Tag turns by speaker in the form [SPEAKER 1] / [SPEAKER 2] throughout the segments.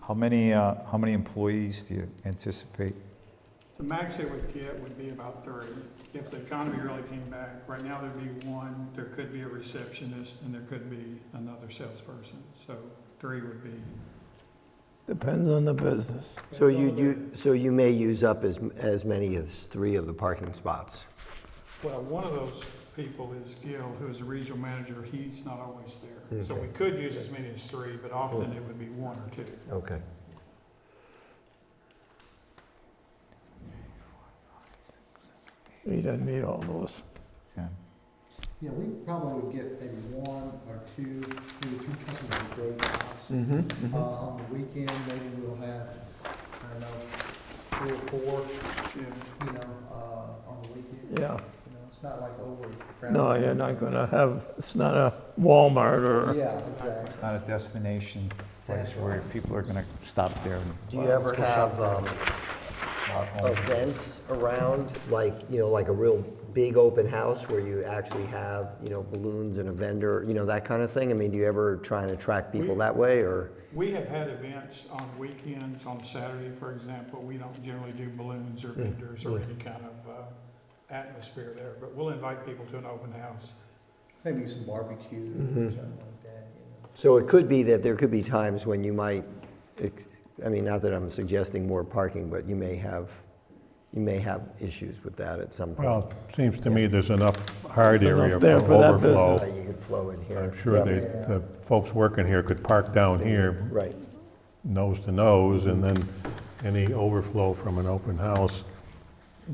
[SPEAKER 1] How many, uh, how many employees do you anticipate?
[SPEAKER 2] The max they would get would be about thirty, if the economy really came back. Right now, there'd be one, there could be a receptionist, and there could be another salesperson, so three would be.
[SPEAKER 3] Depends on the business.
[SPEAKER 4] So you, you, so you may use up as, as many as three of the parking spots.
[SPEAKER 2] Well, one of those people is Gil, who is the regional manager, he's not always there. So we could use as many as three, but often it would be one or two.
[SPEAKER 4] Okay.
[SPEAKER 3] He doesn't need all those.
[SPEAKER 1] Yeah.
[SPEAKER 5] Yeah, we probably would get maybe one or two, maybe three customers a day tops.
[SPEAKER 6] Mm-hmm.
[SPEAKER 5] Uh, on the weekend, maybe we'll have, I don't know, three or four,
[SPEAKER 2] Yeah.
[SPEAKER 5] you know, uh, on the weekend.
[SPEAKER 3] Yeah.
[SPEAKER 5] You know, it's not like over.
[SPEAKER 3] No, you're not gonna have, it's not a Walmart or,
[SPEAKER 5] Yeah, exactly.
[SPEAKER 1] It's not a destination place where people are gonna stop there and.
[SPEAKER 4] Do you ever have um,
[SPEAKER 1] Not home.
[SPEAKER 4] events around, like, you know, like a real big open house where you actually have, you know, balloons and a vendor, you know, that kind of thing? I mean, do you ever try and attract people
[SPEAKER 2] We-
[SPEAKER 4] that way or?
[SPEAKER 2] We have had events on weekends, on Saturday, for example. We don't generally do balloons or vendors or any kind of uh, atmosphere there, but we'll invite people to an open house.
[SPEAKER 5] Maybe some barbecue
[SPEAKER 1] Mm-hmm.
[SPEAKER 5] or something like that, you know.
[SPEAKER 4] So it could be that there could be times when you might, ex- I mean, not that I'm suggesting more parking, but you may have, you may have issues with that at some point.
[SPEAKER 6] Well, it seems to me there's enough hard
[SPEAKER 3] Enough
[SPEAKER 6] area for
[SPEAKER 3] there for that
[SPEAKER 4] Uh,
[SPEAKER 6] overflow.
[SPEAKER 4] You could flow in here.
[SPEAKER 6] I'm sure they, the folks working here could park down here,
[SPEAKER 4] Right.
[SPEAKER 6] nose to nose, and then any overflow from an open house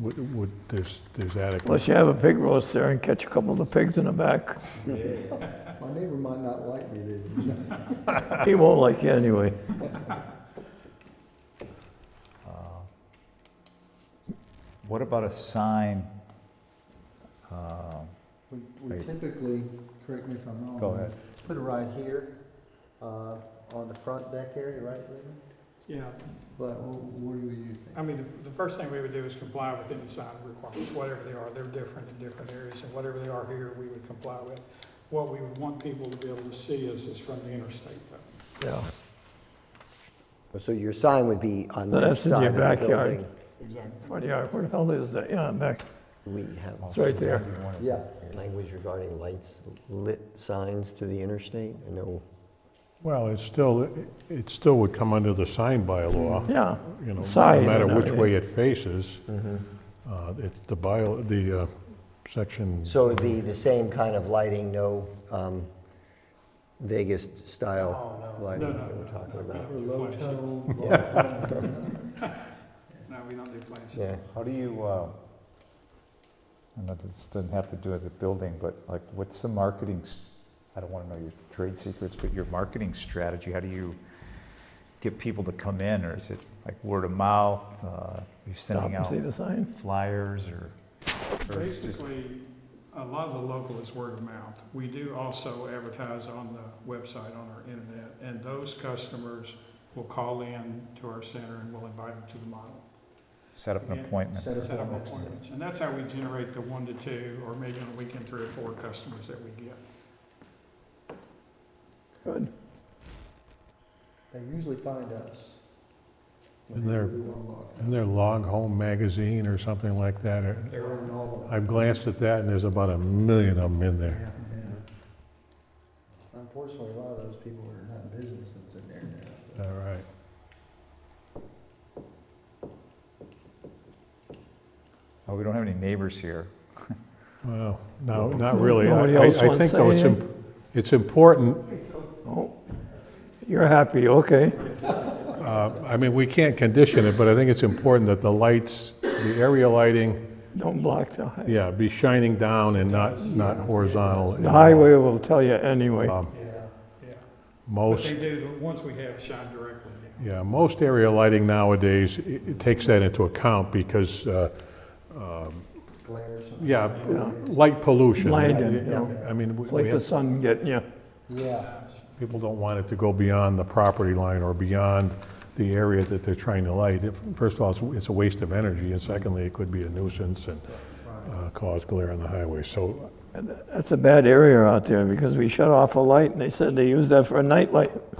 [SPEAKER 6] would, would, there's, there's adequate.
[SPEAKER 3] unless you have a pig roast there and catch a couple of the pigs in the back.
[SPEAKER 5] My neighbor might not like me, then.
[SPEAKER 3] He won't like you anyway.
[SPEAKER 1] What about a sign? Uh,
[SPEAKER 5] We we
[SPEAKER 1] Right.
[SPEAKER 5] typically, correct me if I'm wrong.
[SPEAKER 1] Go ahead.
[SPEAKER 5] Put it right here, uh, on the front deck area, right, Raymond?
[SPEAKER 2] Yeah,
[SPEAKER 5] But wh- what do you think?
[SPEAKER 2] I mean, the- the first thing we would do is comply with any sign requirements, whatever they are. They're different in different areas, and whatever they are here, we would comply with. What we would want people to be able to see is, is from the interstate. though.
[SPEAKER 3] Yeah.
[SPEAKER 4] So your sign would be on
[SPEAKER 3] No,
[SPEAKER 4] this
[SPEAKER 3] that's in your
[SPEAKER 4] side of the
[SPEAKER 3] backyard.
[SPEAKER 4] building.
[SPEAKER 2] Exactly.
[SPEAKER 3] What do you, where the hell is that? Yeah, back,
[SPEAKER 4] We have
[SPEAKER 3] it's right there.
[SPEAKER 1] you wanna-
[SPEAKER 5] Yeah.
[SPEAKER 4] language regarding lights, lit signs to the interstate. I know,
[SPEAKER 6] Well, it's still, it still would come under the sign bylaw.
[SPEAKER 3] Yeah.
[SPEAKER 6] you know, no
[SPEAKER 3] Side
[SPEAKER 6] matter
[SPEAKER 3] and
[SPEAKER 6] which
[SPEAKER 3] everything.
[SPEAKER 6] way it faces,
[SPEAKER 3] Mm-hmm.
[SPEAKER 6] uh, it's the bio, the uh, section.
[SPEAKER 4] so it'd be the same kind of lighting, no um, Vegas-style lighting
[SPEAKER 2] No, no,
[SPEAKER 4] that we're
[SPEAKER 2] no,
[SPEAKER 4] talking
[SPEAKER 2] no, we
[SPEAKER 4] about.
[SPEAKER 2] don't do
[SPEAKER 5] Oh, Low
[SPEAKER 2] flashy.
[SPEAKER 5] tone. low tone.
[SPEAKER 2] No, we don't do flashy.
[SPEAKER 4] Yeah.
[SPEAKER 1] How do you, uh, I know this doesn't have to do with the building, but like, what's the marketing, s- I don't wanna know your trade secrets, but your marketing strategy, how do you get people to come in, or is it like word of mouth, uh, you're
[SPEAKER 3] Stop
[SPEAKER 1] sending
[SPEAKER 3] and
[SPEAKER 1] out
[SPEAKER 3] see the sign.
[SPEAKER 1] flyers, or? or it's just-
[SPEAKER 2] Basically, a lot of the local is word of mouth. We do also advertise on the website, on our internet, and those customers will call in to our center and we'll invite them to the model.
[SPEAKER 1] Set up an
[SPEAKER 2] Yeah.
[SPEAKER 1] appointment.
[SPEAKER 5] Set
[SPEAKER 2] Set up
[SPEAKER 5] appointments.
[SPEAKER 2] appointments, and that's how we generate the one to two, or maybe on a weekend, three or four customers that we get.
[SPEAKER 3] Good.
[SPEAKER 5] They usually find us. when
[SPEAKER 6] And they're-
[SPEAKER 5] they really wanna log in.
[SPEAKER 6] Isn't there Log Home Magazine or something like that? or-
[SPEAKER 5] They're in all of them.
[SPEAKER 6] I've glanced at that, and there's about a million of them in there.
[SPEAKER 5] Yeah, yeah. Unfortunately, a lot of those people are not in business that's in there now. but-
[SPEAKER 6] All right.
[SPEAKER 1] Oh, we don't have any neighbors here.
[SPEAKER 6] Well, no, not really. I-
[SPEAKER 3] Nobody
[SPEAKER 6] I-
[SPEAKER 3] else wants
[SPEAKER 6] I think
[SPEAKER 3] to
[SPEAKER 6] though it's,
[SPEAKER 3] say
[SPEAKER 6] im- it's important,
[SPEAKER 3] Oh. You're happy, okay.
[SPEAKER 6] uh, I mean, we can't condition it, but I think it's important that the lights, the area lighting,
[SPEAKER 3] Don't block the highway.
[SPEAKER 6] yeah, be shining down and not, not horizontal.
[SPEAKER 3] The highway will tell you anyway.
[SPEAKER 5] Um,
[SPEAKER 6] Um,
[SPEAKER 2] Yeah. Yeah, but
[SPEAKER 6] Most
[SPEAKER 2] they do, the ones we have shine directly down.
[SPEAKER 6] Yeah, most area lighting nowadays, it it takes that into account because, uh,
[SPEAKER 5] Glare or something.
[SPEAKER 6] yeah, light pollution.
[SPEAKER 3] Blinding,
[SPEAKER 6] You know, I mean, we-
[SPEAKER 3] It's
[SPEAKER 6] we
[SPEAKER 3] like the
[SPEAKER 6] have-
[SPEAKER 3] sun getting you.
[SPEAKER 5] Yeah,
[SPEAKER 6] people don't want it to go beyond the property line or beyond the area that they're trying to light. If- First of all, it's- it's a waste of energy, and secondly, it could be a nuisance and uh, cause glare on the highway. So
[SPEAKER 3] That's a bad area out there because we shut off a light and they said they use that for a night light.